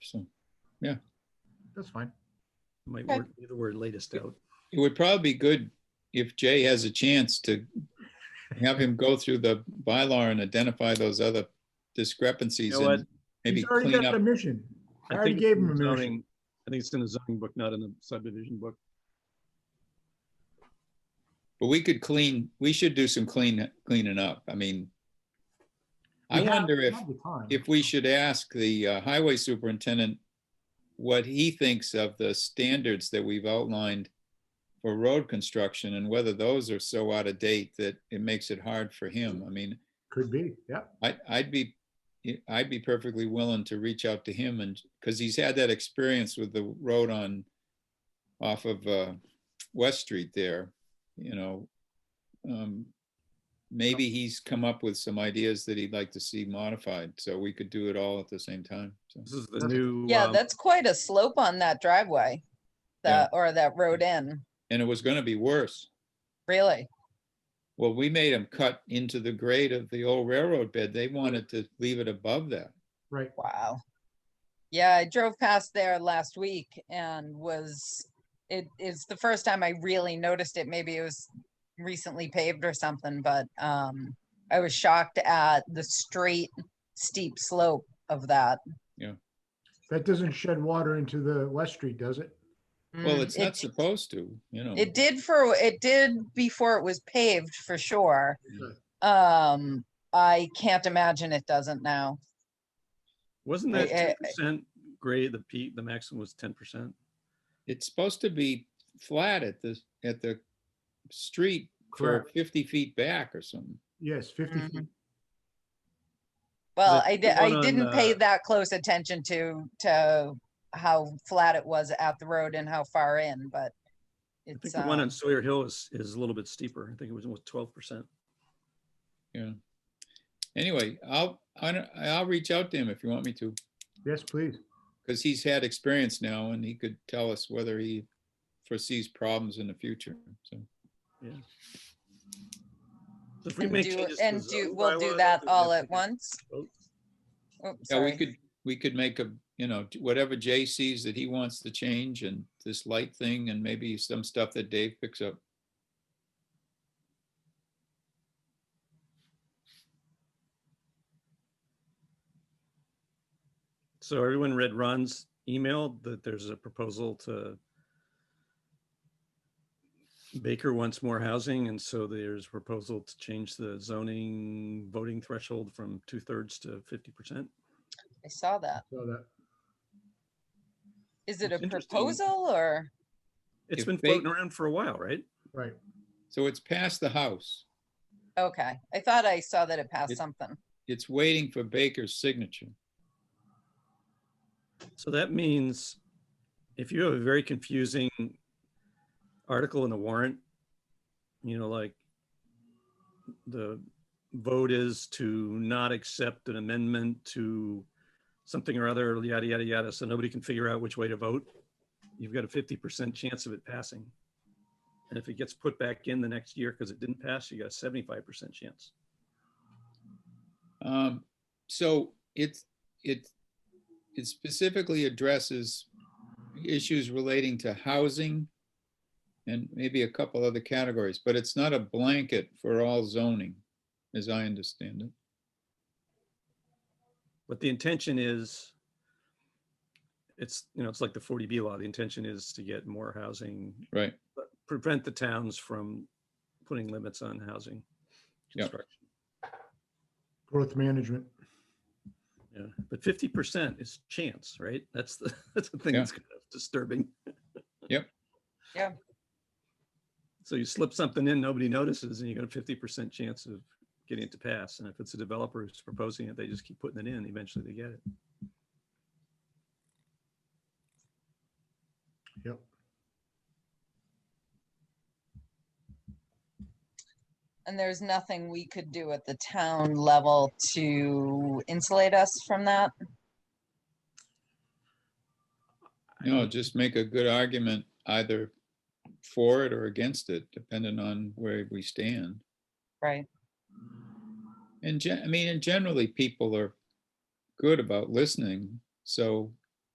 So That's fine. Might Okay. work, the word latest out. it would probably be good if Jay has a chance to have him go through the bylaw and identify those other discrepancies You know what? and maybe He's already clean got the up. mission. I already think gave it's him a in the zoning- mission. I think it's in the zoning book, not in the subdivision book. But we could clean, we should do some clean, cleaning up. I mean, We I have- wonder we if, have the time. if we should ask the uh, highway superintendent what he thinks of the standards that we've outlined for road construction and whether those are so out of date that it makes it hard for him. I mean, Could be, yeah. I, I'd be, I'd be perfectly willing to reach out to him and, because he's had that experience with the road on, off of, uh, West Street there, you know. Um, Maybe he's come up with some ideas that he'd like to see modified, so we could do it all at the same time. So This is the new. Yeah, um, that's quite a slope on that driveway, Yeah. that, or that road in, And it was gonna be worse. really. Well, we made him cut into the grade of the old railroad bed. They wanted to leave it above that. Right. Wow. Yeah, I drove past there last week and was, it is the first time I really noticed it. Maybe it was recently paved or something, but um, I was shocked at the straight steep slope of that. That doesn't shed water into the West Street, does it? Well, Mm, it's it- not supposed to, you know. It did for, it did before it was paved for sure. Sure. Um, I can't imagine it doesn't now. Wasn't I- that I- I- ten percent grade, the peak, the maximum was ten percent? It's supposed to be flat at the, at the street for Correct. fifty feet back or something. Yes, 50 Mhm. feet. Well, The- I the did, I one on, didn't pay uh, that close attention to, to how flat it was at the road and how far in, but I think it's, the one uh, on Sawyer Hill is, is a little bit steeper. I think it was almost twelve percent. Anyway, I'll, I don't- I'll reach out to him if you want me to, Yes, please. because he's had experience now and he could tell us whether he foresees problems in the future, so. and do, and uh, do, we'll do that all at once. vote. Oh, Yeah, we sorry. could, we could make a, you know, whatever Jay sees that he wants to change and this light thing and maybe some stuff that Dave picks up. So everyone read Ron's email that there's a proposal to Baker wants more housing, and so there's a proposal to change the zoning voting threshold from two thirds to fifty percent. I saw that. So that, Is it a It's interesting. proposal or? It's If been Ba- floating around for a while, right? right. So it's past the house. Okay, I thought I saw that it It- passed something. It's waiting for Baker's signature. So that means if you have a very confusing article in the warrant, you know, like the vote is to not accept an amendment to something or other, yada, yada, yada, so nobody can figure out which way to vote, you've got a fifty percent chance of it passing. And if it gets put back in the next year because it didn't pass, you got a seventy-five percent chance. Um, so it's, it, it specifically addresses issues relating to housing and maybe a couple other categories, but it's not a blanket for all zoning, as I understand it. But the intention is, it's, you know, it's like the forty B law. The intention is to get more housing Right. but prevent the towns from putting limits on housing. Yep. construction. Growth management. Yeah, but fifty percent is chance, right? That's the, that's the thing Yeah. that's kind of disturbing. Yep. Yeah. So you slip something in, nobody notices, and you got a fifty percent chance of getting it to pass. And if it's a developer who's proposing it, they just keep putting it in, eventually they get it. Yep. And there's nothing we could do at the town level to insulate us from that? No, just make a good argument either for it or against it, depending on where we stand. Right, And gen, I mean, and generally people are good about listening, so